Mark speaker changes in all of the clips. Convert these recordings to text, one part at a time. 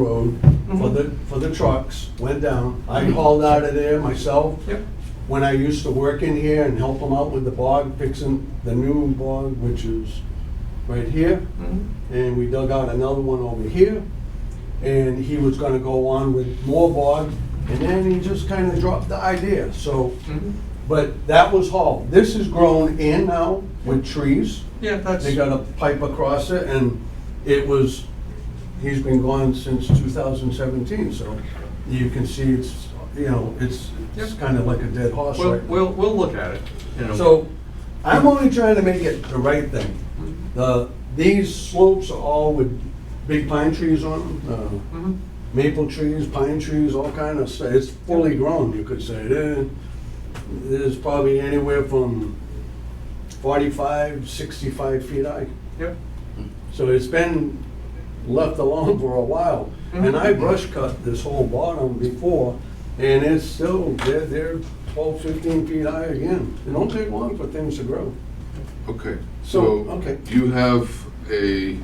Speaker 1: road for the, for the trucks, went down. I
Speaker 2: Mhm.
Speaker 1: hauled out of there myself
Speaker 2: Yep.
Speaker 1: when I used to work in here and help them out with the bog, fixing the new bog, which is right here.
Speaker 2: Mhm.
Speaker 1: And we dug out another one over here. And he was gonna go on with more bog, and then he just kinda dropped the idea, so.
Speaker 2: Mhm.
Speaker 1: But that was hauled. This is grown in now with trees.
Speaker 2: Yeah, that's,
Speaker 1: They got a pipe across it and it was, he's been gone since 2017, so you can see it's, you know, it's, it's
Speaker 2: Yep.
Speaker 1: kind of like a dead horse
Speaker 2: we'll,
Speaker 1: right now.
Speaker 2: we'll, we'll look at it, you know.
Speaker 1: So I'm only trying to make it the right thing. The, these slopes are all with big pine trees on them, uh,
Speaker 2: Mhm.
Speaker 1: maple trees, pine trees, all kind of stuff. It's fully grown, you could say. There- There's probably anywhere from 45, 65 feet high.
Speaker 2: Yep,
Speaker 1: So it's been left alone for a while. And I brush cut this whole bottom before, and it's still, they're, they're 12, 15 feet high again. It don't take long for things to grow.
Speaker 3: Okay,
Speaker 1: So,
Speaker 3: so
Speaker 1: okay.
Speaker 3: you have a,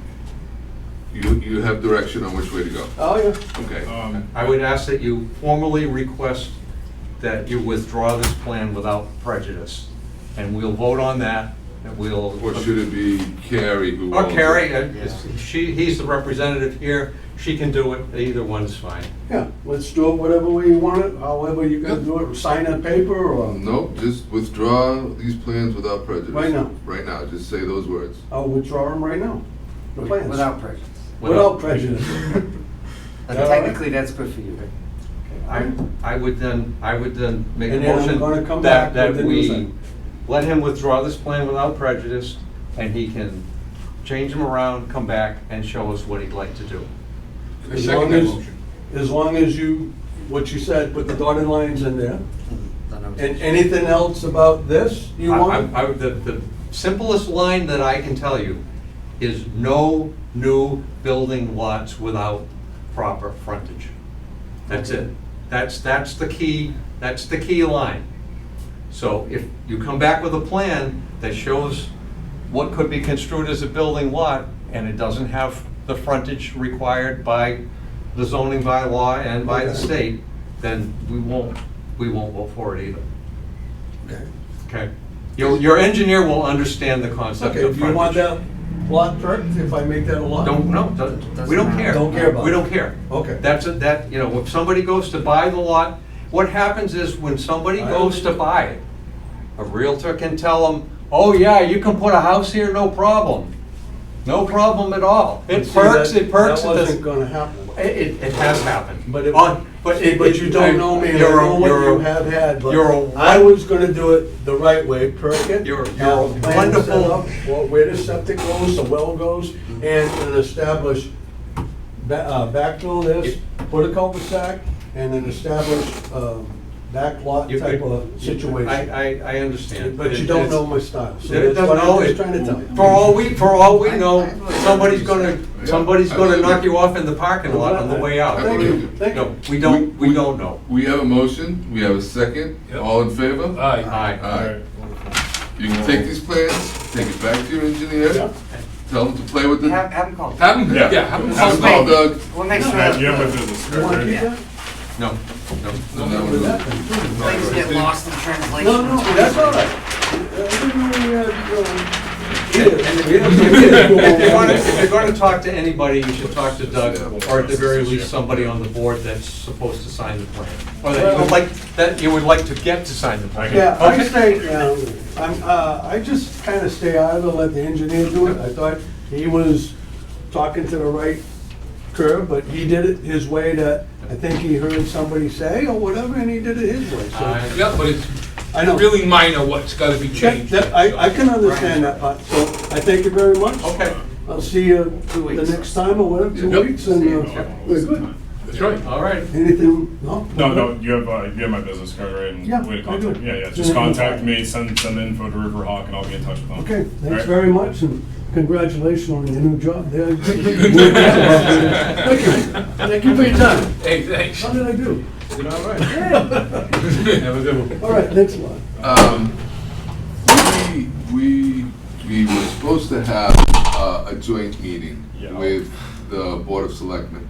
Speaker 3: you, you have direction on which way to go.
Speaker 1: Oh, yeah.
Speaker 3: Okay.
Speaker 4: Um,
Speaker 2: I would ask that you formally request that you withdraw this plan without prejudice, and we'll vote on that, and we'll.
Speaker 3: Or should it be Carrie who
Speaker 2: Or
Speaker 3: owns it?
Speaker 2: Carrie, uh, she, he's the representative here, she can do it, either one's fine.
Speaker 1: Yeah, let's do it whatever way you want it, however you can do it, sign a paper or,
Speaker 3: No, just withdraw these plans without prejudice.
Speaker 1: Right now.
Speaker 3: Right now, just say those words.
Speaker 1: I'll withdraw them right now. The plans.
Speaker 5: Without prejudice.
Speaker 1: Without prejudice.
Speaker 5: But
Speaker 1: Yeah.
Speaker 5: Technically, that's good for you.
Speaker 2: I, I would then, I would then make a
Speaker 1: And then I'm
Speaker 2: motion
Speaker 1: gonna come
Speaker 2: that,
Speaker 1: back
Speaker 2: that
Speaker 1: with the
Speaker 2: we
Speaker 1: design.
Speaker 2: let him withdraw this plan without prejudice, and he can change them around, come back, and show us what he'd like to do.
Speaker 3: I
Speaker 1: As
Speaker 3: second
Speaker 1: long
Speaker 3: that
Speaker 1: as-
Speaker 3: motion.
Speaker 1: As long as you, what you said, put the dotted lines in there. And anything else about this you
Speaker 2: I-
Speaker 1: want?
Speaker 2: I, I, the, the simplest line that I can tell you is no new building lots without proper frontage. That's it. That's, that's the key, that's the key line. So if you come back with a plan that shows what could be construed as a building lot, and it doesn't have the frontage required by the zoning bylaw and by the
Speaker 1: Okay.
Speaker 2: state, then we won't, we won't vote for it either.
Speaker 1: Okay.
Speaker 2: Okay. Your, your engineer will understand the concept
Speaker 1: Okay,
Speaker 2: of
Speaker 1: do you want
Speaker 2: frontage.
Speaker 1: that lot correct, if I make that a lot?
Speaker 2: Don't, no, don't- we don't care.
Speaker 1: Don't care about
Speaker 2: We
Speaker 1: it.
Speaker 2: don't care.
Speaker 1: Okay.
Speaker 2: That's, a- that, you know, if somebody goes to buy the lot, what happens is when somebody
Speaker 1: I
Speaker 2: goes to
Speaker 1: understand.
Speaker 2: buy it, a realtor can tell them, oh yeah, you can put a house here, no problem. No problem at all. It
Speaker 1: See,
Speaker 2: perks,
Speaker 1: that-
Speaker 2: it perks.
Speaker 1: That
Speaker 2: it
Speaker 1: wasn't
Speaker 2: doesn't-
Speaker 1: gonna happen.
Speaker 2: It, it- it has happened.
Speaker 1: But it,
Speaker 2: On-
Speaker 1: but
Speaker 2: Oh, it-
Speaker 1: but
Speaker 2: it-
Speaker 1: you don't know me, and I
Speaker 2: you're a-
Speaker 1: know what
Speaker 2: you're a-
Speaker 1: you have had, but
Speaker 2: you're a-
Speaker 1: I was gonna do it the right way, perk it.
Speaker 2: You're-
Speaker 1: have
Speaker 2: you're a
Speaker 1: a plan set
Speaker 2: wonderful- Mm-hmm.
Speaker 1: up, wh- Where the septic goes, the well goes, and and establish, ba- uh, backfill this, put a cul-de-sac, and then establish, uh, back lot
Speaker 2: you
Speaker 1: type
Speaker 2: could-
Speaker 1: of
Speaker 2: I,
Speaker 1: situation.
Speaker 2: I, I understand.
Speaker 1: But you
Speaker 2: It-
Speaker 1: don't
Speaker 2: it's-
Speaker 1: know my style, so that's
Speaker 2: It doesn't
Speaker 1: what
Speaker 2: know
Speaker 1: I'm
Speaker 2: it.
Speaker 1: just trying to tell you.
Speaker 2: For all we, for all we
Speaker 5: I-
Speaker 2: know,
Speaker 5: I believe
Speaker 2: somebody's
Speaker 5: you
Speaker 2: gonna,
Speaker 3: said.
Speaker 2: somebody's
Speaker 3: Yeah, I
Speaker 2: gonna
Speaker 3: believe
Speaker 2: knock
Speaker 3: you.
Speaker 2: you off in the parking lot on the way out.
Speaker 3: I-
Speaker 1: Thank you, thank you.
Speaker 2: No, we don't, we don't know.
Speaker 3: We have a motion, we have a second,
Speaker 4: Yep.
Speaker 3: all in favor?
Speaker 4: Aye.
Speaker 2: Aye.
Speaker 3: Aye.
Speaker 4: Wonderful.
Speaker 3: You can take these plans, take it back to your engineer,
Speaker 1: Yeah.
Speaker 3: tell him to play with it.
Speaker 5: Have, have them call.
Speaker 3: Have him,
Speaker 4: Yeah.
Speaker 3: yeah, have him
Speaker 4: Have
Speaker 3: call
Speaker 4: him
Speaker 3: Doug. No,
Speaker 5: We'll make sure.
Speaker 4: Matt, you
Speaker 5: that
Speaker 4: have my business
Speaker 1: You wanna
Speaker 4: card,
Speaker 1: keep
Speaker 4: right?
Speaker 1: that?
Speaker 2: No, no.
Speaker 3: that
Speaker 1: With
Speaker 3: one-
Speaker 1: that thing.
Speaker 5: Things get lost in translation.
Speaker 1: No, no, that's all right. If
Speaker 2: If you're gonna, if you're gonna talk to anybody, you should talk to Doug, or at the very least, somebody on the board that's supposed to sign the plan. Or that you would like, that you would like to get to sign the plan.
Speaker 1: Yeah, I
Speaker 2: Okay.
Speaker 1: stay, um, I'm, uh, I just kinda stay out of it, let the engineer do it. I thought he was talking to the right curve, but he did it his way that, I think he heard somebody say or whatever, and he did it his way, so.
Speaker 2: I-
Speaker 6: Yeah, but it's
Speaker 1: I know.
Speaker 6: really minor what's gotta be
Speaker 1: That-
Speaker 6: changed.
Speaker 1: that- I, I can understand that part, so I thank you very much.
Speaker 2: Okay,
Speaker 1: I'll see you
Speaker 5: Two
Speaker 1: the
Speaker 5: weeks.
Speaker 1: next time or whatever, two
Speaker 3: Yep.
Speaker 1: weeks, and, uh, we're good.
Speaker 3: That's right.
Speaker 2: all right.
Speaker 1: Anything, no?
Speaker 4: No, no, you have, uh, you have my business card, right? and
Speaker 1: Yeah,
Speaker 4: Way to
Speaker 1: I do.
Speaker 4: contact, yeah, yeah,
Speaker 1: Yeah, yeah.
Speaker 4: just contact me, send, send info to Riverhawk and I'll be in touch with them.
Speaker 1: Okay, thanks
Speaker 4: Alright.
Speaker 1: very much, and congratulations on your new job there. Thank you, thank you for your time.
Speaker 6: Hey, thanks.
Speaker 1: How did I do?
Speaker 2: All right.
Speaker 6: Have a good one.
Speaker 1: All right, next one.
Speaker 3: Um, we, we, we were supposed to have uh, a joint meeting
Speaker 4: Yeah.
Speaker 3: with the Board of Selectmen.